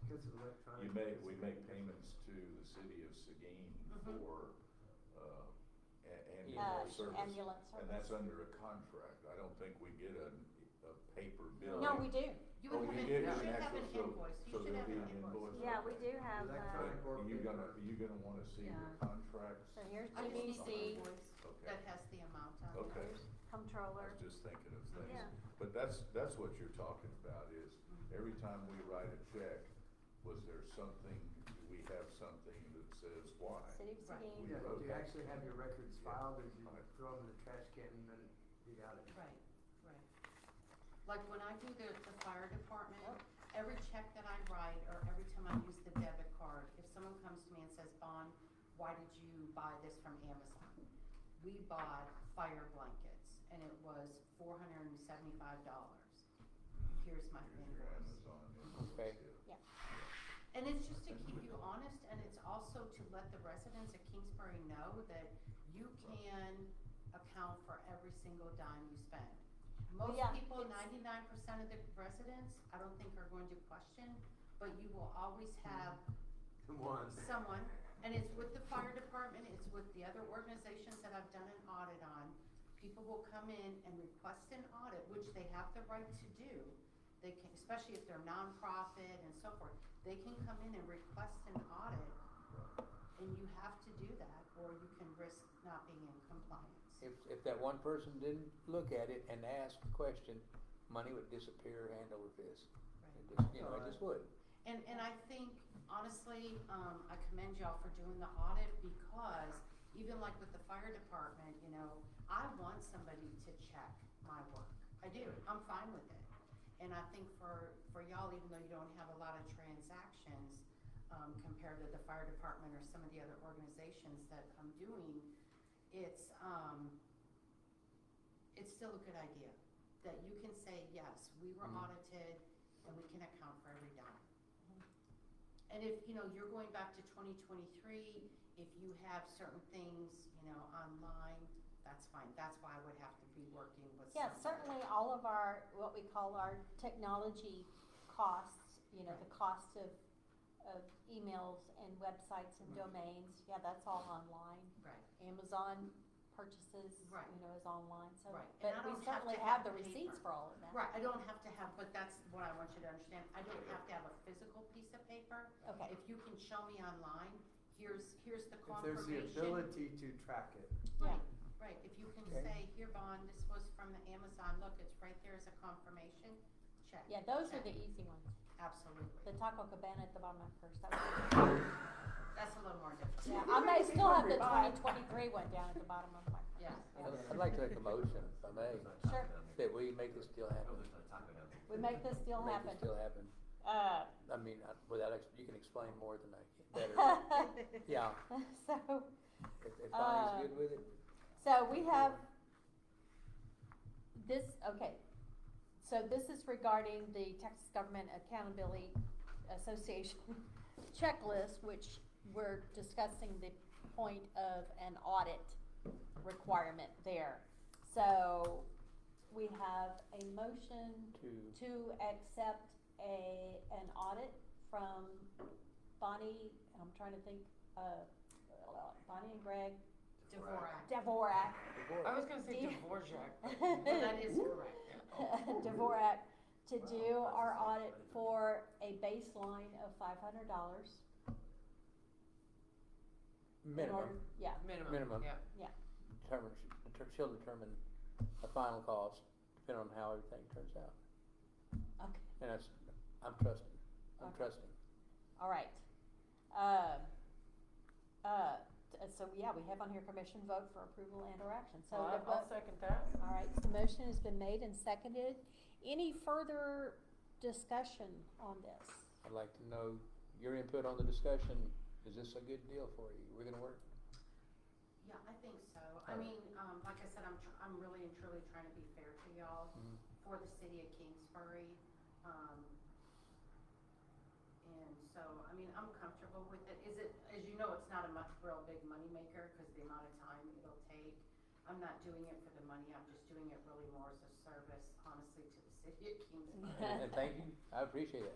Because of electronic. uh, You make, we it's- make payments to the city of Seguin Mm-hmm. Mhm. for, uh, a- Uh, ambulance service. ambulance And that's service. under a contract. I don't think we get a, a paper bill. No, we do. You Oh, would have, you an- did you an should have an actual- so- invoice, so you should there'd have be an an invoice. invoice. Yeah, we do have, uh, Electronic. But you gonna, you gonna wanna see the Yeah. contract? so here's I just need an GBC, invoice Okay. that has the amount on it. Okay. I comptroller. was just thinking of Yeah. Mm-hmm. things. But that's, that's what you're talking about is every time we write a check, was there something, do we have something that says why? City of Right. Seguin. Yeah, do you actually have your records Yeah. filed, or do you Right. throw them in the trash can and then you got it? Right, right. Like when I do the, the fire department, every check that I write or every time I use the debit card, if someone comes to me and says, Bon, why did you buy this from Amazon? We bought fire blankets and it was four hundred and seventy-five dollars. Here's my Here's your invoice. Amazon invoice, Okay. yeah. Yeah. And it's just to keep you honest, and it's also to let the residents of Kingsbury know that you can account for every single dime you spend. Most Yeah, people, it's- ninety-nine percent of the residents, I don't think are going to question, but you will always have One. someone, and it's with the fire department, it's with the other organizations that I've done an audit on. People will come in and request an audit, which they have the right to do. They can, especially if they're nonprofit and so forth, they can come in and request an audit, and you have to do that, or you can risk not being in compliance. If, if that one person didn't look at it and ask the question, money would disappear hand over fist. It just, you know, it just would. And, and I think, honestly, um, I commend y'all for doing the audit because even like with the fire department, you know, I want somebody to check my work. I do, I'm fine with it. And I think for, for y'all, even though you don't have a lot of transactions, um, compared to the fire department or some of the other organizations that I'm doing, it's, um, it's still a good idea that you can say, yes, we were Mhm. audited and we can account for every dime. And if, you know, you're going back to twenty twenty-three, if you have certain things, you know, online, that's fine. That's why I would have to be working with Yeah, someone. certainly all of our, what we call our technology costs, you know, the cost of, of emails and websites and domains, yeah, that's all online. Right, Amazon purchases, Right. you know, is online, so, Right. And I but don't we have certainly to have have the the receipts paper. for all of that. right. I don't have to have, but that's what I want you to understand. I don't have to have a physical piece of paper. Okay. If you can show me online, here's, here's the If confirmation. there's the ability to track it. Right, right, if you can Okay. say, here, Bond, this was from the Amazon, look, it's right there as a confirmation, check. Yeah, those are the check. easy ones. The Absolutely, Taco Cabana at the bottom of my purse, that was. that's a little more difficult. Yeah, I may still have the twenty twenty-three one down at the bottom of my purse. Yeah. I'd I'd like to make a motion, if I may, Sure. that we make this deal happen. We make this deal Make this deal happen. happen. Uh, I mean, I- without, ex- you can explain more than I can, better. Yeah, So, if, if Bonnie's Uh, good with it. so we have this, okay. So this is regarding the Texas Government Accountability Association checklist, which we're discussing the point of an audit requirement there. So we have a motion To- to accept a, an audit from Bonnie, and I'm trying to think, uh, Bonnie and Greg, Dvorak, Dvorak. uh, I was gonna say Do you- Dvorak. but- Well, that is correct, Dvorak to do our audit for a baseline of five hundred dollars. Minimum, Yeah, Minimum. Minimum. Yeah. yeah, determine, deter- she'll determine the final cost, depending on how everything turns out. okay, And that's, I'm trusting, I'm Okay. trusting. all right. Um, uh, t- so, yeah, we have on here commission vote for approval and or action, so. Well, the I'll, I'll vote- second that. All right, so motion has been made and seconded. Any further discussion on this? I'd like to know your input on the discussion. Is this a good deal for you? We're gonna work? yeah, I think so. I mean, um, like I said, I'm, tr- I'm really and truly trying to be fair to y'all Mhm. for the city of Kingsbury. Um, and so, I mean, I'm comfortable with it. Is it, as you know, it's not a much, real big moneymaker because the amount of time it'll take. I'm not doing it for the money, I'm just doing it really more as a service, honestly, to the city of Kingsbury. And and thank you, I appreciate it.